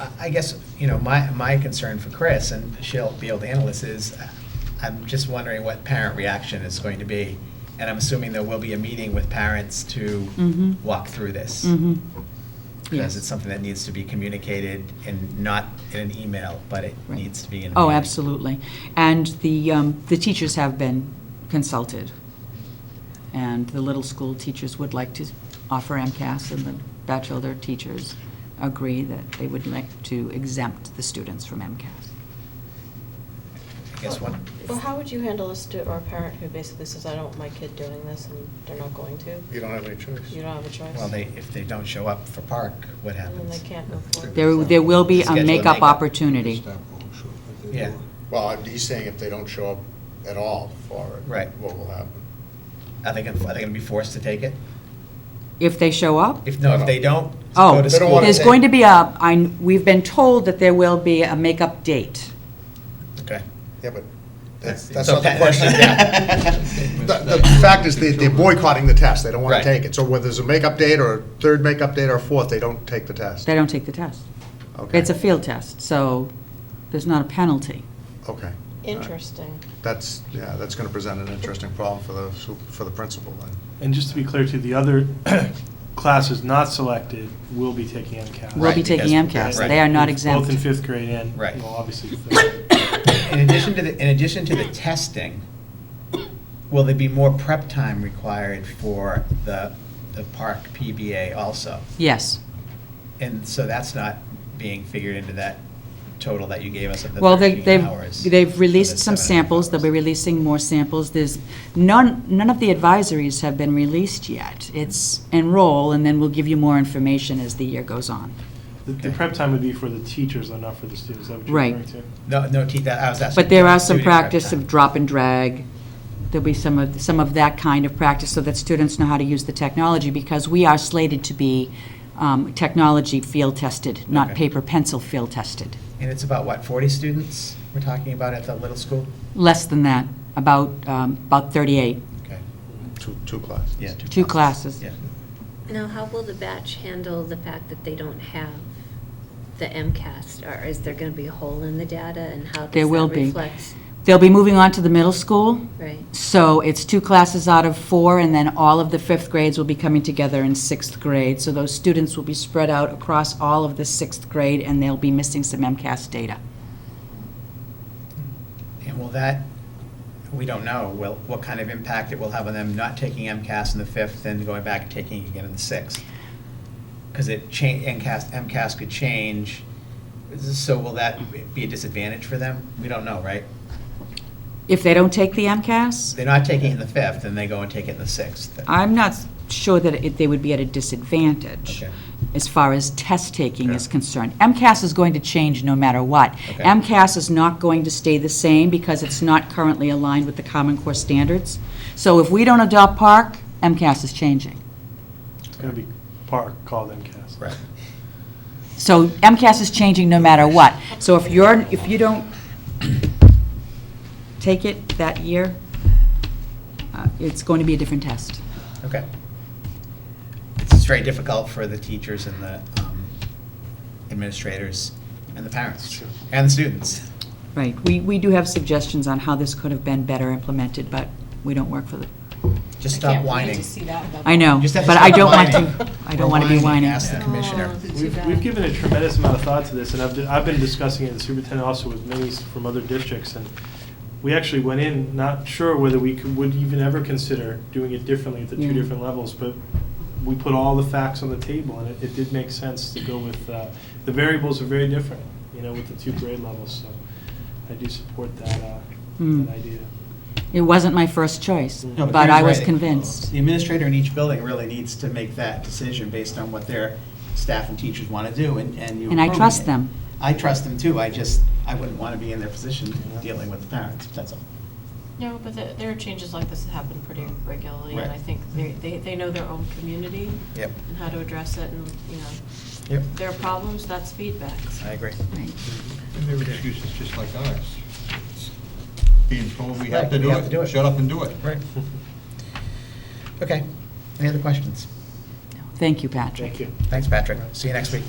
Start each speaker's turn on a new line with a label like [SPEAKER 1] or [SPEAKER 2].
[SPEAKER 1] I- I guess, you know, my, my concern for Chris, and she'll be able to handle this, is uh, I'm just wondering what parent reaction is going to be. And I'm assuming there will be a meeting with parents to
[SPEAKER 2] Mhm.
[SPEAKER 1] walk through this.
[SPEAKER 2] Mhm.
[SPEAKER 1] Because it's
[SPEAKER 2] Yes.
[SPEAKER 1] something that needs to be communicated and not in an email, but it
[SPEAKER 2] Right.
[SPEAKER 1] needs to be in. a
[SPEAKER 2] Oh,
[SPEAKER 1] meeting.
[SPEAKER 2] absolutely. And the, um, the teachers have been consulted. And the little school teachers would like to offer MCAS, and the bachelor teachers agree that they would like to exempt the students from MCAS.
[SPEAKER 1] I guess one,
[SPEAKER 3] Well, how would you handle a student or a parent who basically says, I don't want my kid doing this and they're not going to?
[SPEAKER 4] You don't have any choice.
[SPEAKER 3] You don't have a choice?
[SPEAKER 1] well, they, if they don't show up for park, what
[SPEAKER 3] And then
[SPEAKER 1] happens?
[SPEAKER 3] they can't move forward.
[SPEAKER 2] There, there will be
[SPEAKER 1] Schedule
[SPEAKER 2] a
[SPEAKER 1] a
[SPEAKER 2] makeup
[SPEAKER 1] makeup. uh,
[SPEAKER 2] opportunity.
[SPEAKER 1] Yeah.
[SPEAKER 4] Well, he's saying if they don't show up at all for it.
[SPEAKER 1] Right.
[SPEAKER 4] What will happen?
[SPEAKER 1] Are they going, are they going to be forced to take it?
[SPEAKER 2] If they show up,
[SPEAKER 1] If, no, if they don't,
[SPEAKER 2] oh,
[SPEAKER 1] go to
[SPEAKER 4] They don't
[SPEAKER 1] school.
[SPEAKER 4] wanna
[SPEAKER 2] there's
[SPEAKER 4] take-
[SPEAKER 2] going to be a, I, we've been told that there will be a makeup date.
[SPEAKER 1] Okay.
[SPEAKER 4] Yeah, but that's,
[SPEAKER 1] It's
[SPEAKER 4] that's not the
[SPEAKER 1] okay.
[SPEAKER 4] question. yeah. The, the fact is, they- they're boycotting the test, they don't want
[SPEAKER 1] Right.
[SPEAKER 4] to take it. So whether there's a makeup date or a third makeup date or a fourth, they don't take the test.
[SPEAKER 2] They don't take the test.
[SPEAKER 4] Okay.
[SPEAKER 2] It's a field test, so there's not a penalty.
[SPEAKER 4] Okay.
[SPEAKER 3] Interesting.
[SPEAKER 4] That's, yeah, that's going to present an interesting problem for the, su- for the principal then.
[SPEAKER 5] And just to be clear too, the other classes not selected will be taking MCAS.
[SPEAKER 2] Will be
[SPEAKER 1] Right,
[SPEAKER 2] taking
[SPEAKER 1] because-
[SPEAKER 2] MCAS. They are not exempt.
[SPEAKER 5] Both in fifth grade and,
[SPEAKER 1] Right.
[SPEAKER 5] well, obviously. third.
[SPEAKER 1] In addition to the, in addition to the testing, will there be more prep time required for the, the park PBA also?
[SPEAKER 2] Yes.
[SPEAKER 1] And so that's not being figured into that total that you gave us of the
[SPEAKER 2] Well, they,
[SPEAKER 1] 13
[SPEAKER 2] they've,
[SPEAKER 1] hours.
[SPEAKER 2] they've
[SPEAKER 1] for
[SPEAKER 2] released
[SPEAKER 1] the seven and
[SPEAKER 2] some
[SPEAKER 1] a half
[SPEAKER 2] samples, they'll be
[SPEAKER 1] hours.
[SPEAKER 2] releasing more samples, there's, none, none of the advisories have been released yet. It's enroll, and then we'll give you more information as the year goes on.
[SPEAKER 5] The- The prep time would be for the teachers, though, not for the students, is that what you're
[SPEAKER 2] Right.
[SPEAKER 5] referring
[SPEAKER 1] No,
[SPEAKER 5] to?
[SPEAKER 1] no, Keith, that- I was asking.
[SPEAKER 2] But there are
[SPEAKER 1] about
[SPEAKER 2] some
[SPEAKER 1] student prep
[SPEAKER 2] practice
[SPEAKER 1] time.
[SPEAKER 2] of drop and drag, there'll be some of, some of that kind of practice, so that students know how to use the technology, because we are slated to be um, technology field tested, not
[SPEAKER 1] Okay.
[SPEAKER 2] paper pencil field tested.
[SPEAKER 1] And it's about, what, 40 students we're talking about at the little school?
[SPEAKER 2] Less than that, about, um, about 38,
[SPEAKER 1] Okay,
[SPEAKER 4] Two, two classes.
[SPEAKER 1] yeah.
[SPEAKER 2] two classes.
[SPEAKER 1] Yeah.
[SPEAKER 6] Now, how will the batch handle the fact that they don't have the MCAS? Or is there going to be a hole in the data, and how
[SPEAKER 2] There
[SPEAKER 6] does
[SPEAKER 2] will
[SPEAKER 6] that
[SPEAKER 2] be.
[SPEAKER 6] reflect?
[SPEAKER 2] They'll be moving on to the middle school,
[SPEAKER 6] Right,
[SPEAKER 2] so it's two classes out of four, and then all of the fifth grades will be coming together in sixth grade. So those students will be spread out across all of the sixth grade, and they'll be missing some MCAS data.
[SPEAKER 1] And will that, we don't know, will, what kind of impact it will have on them not taking MCAS in the fifth and going back and taking it again in the sixth? Because it cha, MCAS, MCAS could change, so will that be a disadvantage for them? We don't know, right?
[SPEAKER 2] If they don't take the MCAS,
[SPEAKER 1] They're not taking it in the fifth, and they go and take it in the sixth.
[SPEAKER 2] I'm not sure that it- they would be at a disadvantage
[SPEAKER 1] Okay.
[SPEAKER 2] as far as test taking is
[SPEAKER 1] Yeah.
[SPEAKER 2] concerned. MCAS is going to change no matter what.
[SPEAKER 1] Okay.
[SPEAKER 2] MCAS is not going to stay the same because it's not currently aligned with the Common Core standards. So if we don't adopt PARC, MCAS is changing.
[SPEAKER 5] It's going to be Park called MCAS.
[SPEAKER 1] Right.
[SPEAKER 2] So MCAS is changing no matter what. So if you're, if you don't take it that year, uh, it's going to be a different test.
[SPEAKER 1] Okay. It's very difficult for the teachers and the um, administrators and the parents
[SPEAKER 5] Sure.
[SPEAKER 1] and the students.
[SPEAKER 2] Right. We, we do have suggestions on how this could have been better implemented, but we don't work for the,
[SPEAKER 1] Just stop whining.
[SPEAKER 2] I know,
[SPEAKER 1] Just have to
[SPEAKER 2] but I
[SPEAKER 1] stop
[SPEAKER 2] don't want
[SPEAKER 1] whining.
[SPEAKER 2] to, I don't want to be whining.
[SPEAKER 1] Ask the commissioner.
[SPEAKER 5] We've, we've given a tremendous amount of thought to this, and I've, I've been discussing it, the superintendent also with many from other districts, and we actually went in not sure whether we could, would even ever consider doing it differently at the
[SPEAKER 2] Yeah.
[SPEAKER 5] two different levels, but we put all the facts on the table, and it, it did make sense to go with, uh, the variables are very different, you know, with the two grade levels, so I do support that, uh,
[SPEAKER 2] Mm.
[SPEAKER 5] that idea.
[SPEAKER 2] It wasn't my first choice,
[SPEAKER 5] No,
[SPEAKER 1] No,
[SPEAKER 2] but I
[SPEAKER 1] you're
[SPEAKER 2] was
[SPEAKER 1] right.
[SPEAKER 2] convinced.
[SPEAKER 1] The administrator in each building really needs to make that decision based on what their staff and teachers want to do, and, and you.
[SPEAKER 2] And I
[SPEAKER 1] approve
[SPEAKER 2] trust
[SPEAKER 1] it.
[SPEAKER 2] them.
[SPEAKER 1] I trust them too, I just, I wouldn't want to be in their position dealing with the parents, that's all.
[SPEAKER 3] No, but the- there are changes like this that happen pretty regularly, and
[SPEAKER 1] Right.
[SPEAKER 3] I think they, they they know their own community
[SPEAKER 1] Yep,
[SPEAKER 3] and how to address it, and, you know,
[SPEAKER 1] yep,
[SPEAKER 3] their problems, that's feedback.
[SPEAKER 1] I agree.
[SPEAKER 2] Right.
[SPEAKER 7] And their excuse is just like ours. It's Being told we have
[SPEAKER 1] Right,
[SPEAKER 7] to
[SPEAKER 1] we
[SPEAKER 7] do
[SPEAKER 1] have to do it.
[SPEAKER 7] it, shut up and do it.
[SPEAKER 1] Right. Okay, any other questions?
[SPEAKER 2] Thank you, Patrick.
[SPEAKER 5] Thank you.
[SPEAKER 1] Thanks, Patrick. See you next week.